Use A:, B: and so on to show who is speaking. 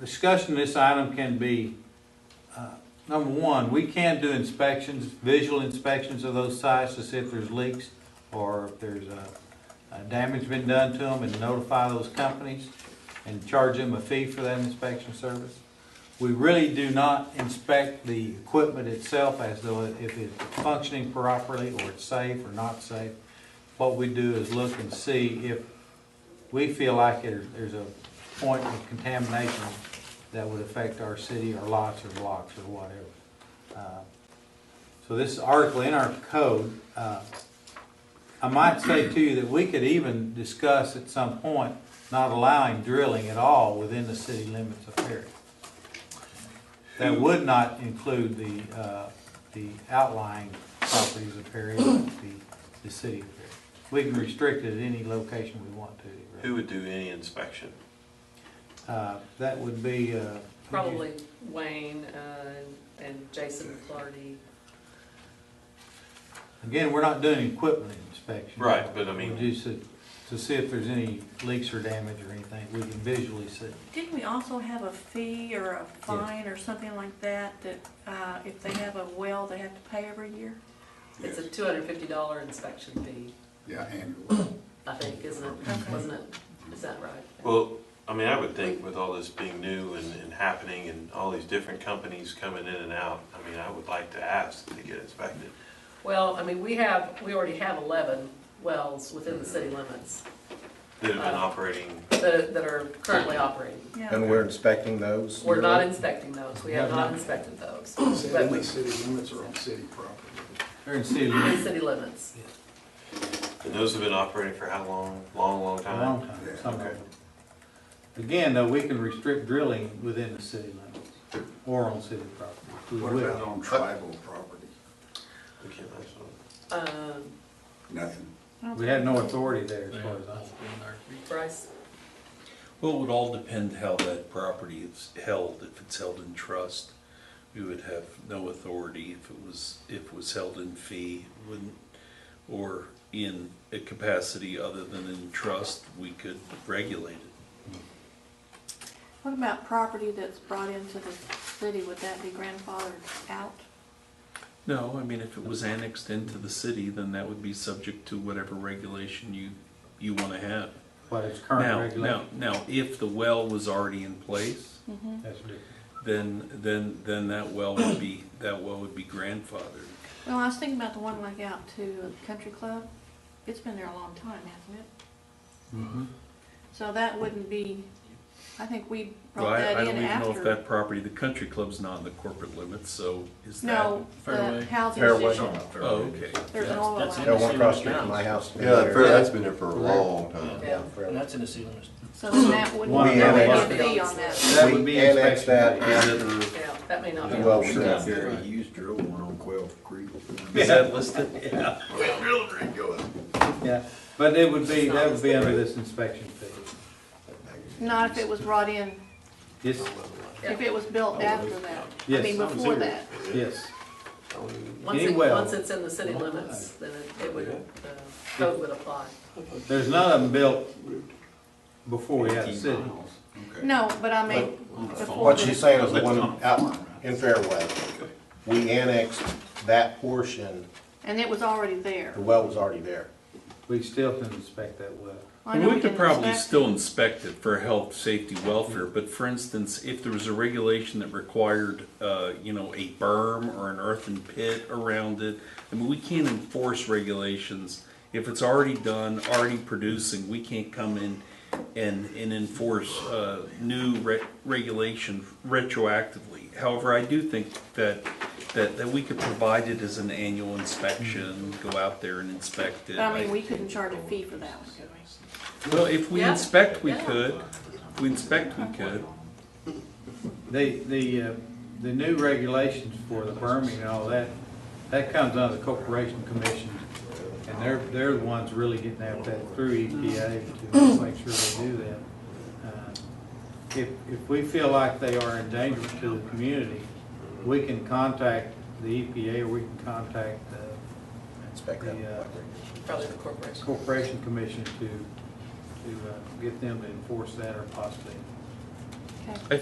A: discussion of this item can be, uh, number one, we can do inspections, visual inspections of those sites to see if there's leaks or if there's uh, uh, damage been done to them and notify those companies and charge them a fee for that inspection service. We really do not inspect the equipment itself as though it- if it's functioning properly or it's safe or not safe. What we do is look and see if we feel like there- there's a point of contamination that would affect our city or lots or blocks or whatever. Uh, So this article in our code, uh, I might say to you that we could even discuss at some point not allowing drilling at all within the city limits of Perry. That would not include the, uh, the outlying properties of Perry, but the, the city of Perry. We can restrict it at any location we want to. really.
B: Who would do any inspection?
A: Uh, That would be. uh,
C: Probably Wayne uh, and Jason Clardy.
A: Again, we're not doing equipment inspection.
B: Right, but I mean-
A: We just, to- to see if there's any leaks or damage or anything, we can visually see.
D: Didn't we also have a fee or a fine or something like that, that uh, if they have a well, they have to pay every year?
C: It's a two hundred and fifty dollar inspection fee,
E: Yeah, annually.
C: I think, isn't it? Wasn't it? Is that right?
B: Well, I mean, I would think with all this being new and, and happening and all these different companies coming in and out, I mean, I would like to ask to get inspected.
C: Well, I mean, we have, we already have eleven wells within the city limits
B: That have been operating,
C: that, that are currently operating.
D: Yeah,
F: And we're inspecting those?
C: We're not inspecting those, we have not inspected those. But
E: Only city limits are on city property.
A: Or in city
C: in
A: limits,
C: city limits,
B: and those have been operating for how long? Long, long
A: a
B: time?
A: long time, some of
B: Okay.
A: them. Again, though, we can restrict drilling within the city limits or on city property. We
E: What
A: will.
E: about on tribal property?
B: We can't ask them.
C: um,
E: Nothing.
A: We have no authority there as far as I know.
C: Bryce,
G: Well, it would all depend how that property is held. If it's held in trust, we would have no authority. If it was, if it was held in fee, wouldn't, or in a capacity other than in trust, we could regulate it.
D: What about property that's brought into the city, would that be grandfathered out?
G: No, I mean, if it was annexed into the city, then that would be subject to whatever regulation you, you want to have.
A: But it's current
G: Now, now,
A: regulation.
G: now, if the well was already in place,
A: That's different.
G: then, then, then that well would be, that well would be grandfathered.
D: Well, I was thinking about the one like out to the country club, it's been there a long time, hasn't it?
E: Mm-hmm.
D: So that wouldn't be, I think we
G: Well,
D: brought
G: I,
D: that
G: I don't
D: in
G: even know if that
D: after.
G: property, the country club's not in the corporate limits, so is that?
D: No, the
H: Fairway.
D: housing
F: Fairway.
D: issue,
G: Oh, okay.
D: there's an
H: That's-
D: oil
H: that's
D: line.
F: Yeah, one across the street from my house.
I: Yeah, that- that's been there for a long time.
C: yeah.
F: Fairway.
H: And that's in the city limits.
D: So then that would,
A: One
D: that would
A: annexed
D: be
C: it.
D: a fee on that.
A: That would
F: We
A: be
F: annexed that
A: inspection.
F: after
C: yeah, that may not be.
F: the well was
I: Sure.
F: done.
I: Gary, you used to drill one on Quail Creek.
G: Is that listed? Yeah.
A: Yeah, but it would be, that would be under this inspection fee.
D: Not if it was brought in,
A: Yes,
D: if it was built after that, I
A: Yes.
D: mean, before that.
A: yes.
C: Once it,
A: Any well.
C: once it's in the city limits, then it- it would, uh, code would apply.
A: There's none of them built before we had the city.
D: No, but I mean, before
F: What she's
D: that.
F: saying is the one out in Fairway. We annexed that portion,
D: And it was already there.
F: the well was already there.
A: We still can inspect that well.
D: I know
G: We could
D: can
G: probably
D: inspect-
G: still inspect it for health, safety, welfare, but for instance, if there was a regulation that required, uh, you know, a berm or an earthen pit around it, I mean, we can't enforce regulations. If it's already done, already producing, we can't come in and, and enforce, uh, new re- regulation retroactively. However, I do think that, that, that we could provide it as an annual inspection, go out there and inspect it.
D: But I mean, we couldn't charge a fee for that one, could we?
G: Well, if we
C: Yeah.
G: inspect, we
C: Yeah.
G: could. If we inspect, we could.
A: The, the, uh, the new regulations for the berming and all that, that comes under the Corporation Commission. And they're, they're the ones really getting at that through EPA to make sure they do that. Uh, If, if we feel like they are in danger to the community, we can contact the EPA or we can contact uh, the
F: Inspect
A: The, uh,
F: that.
C: Probably the corporation.
A: Corporation Commission to, to uh, get them to enforce that or possibly
D: Okay.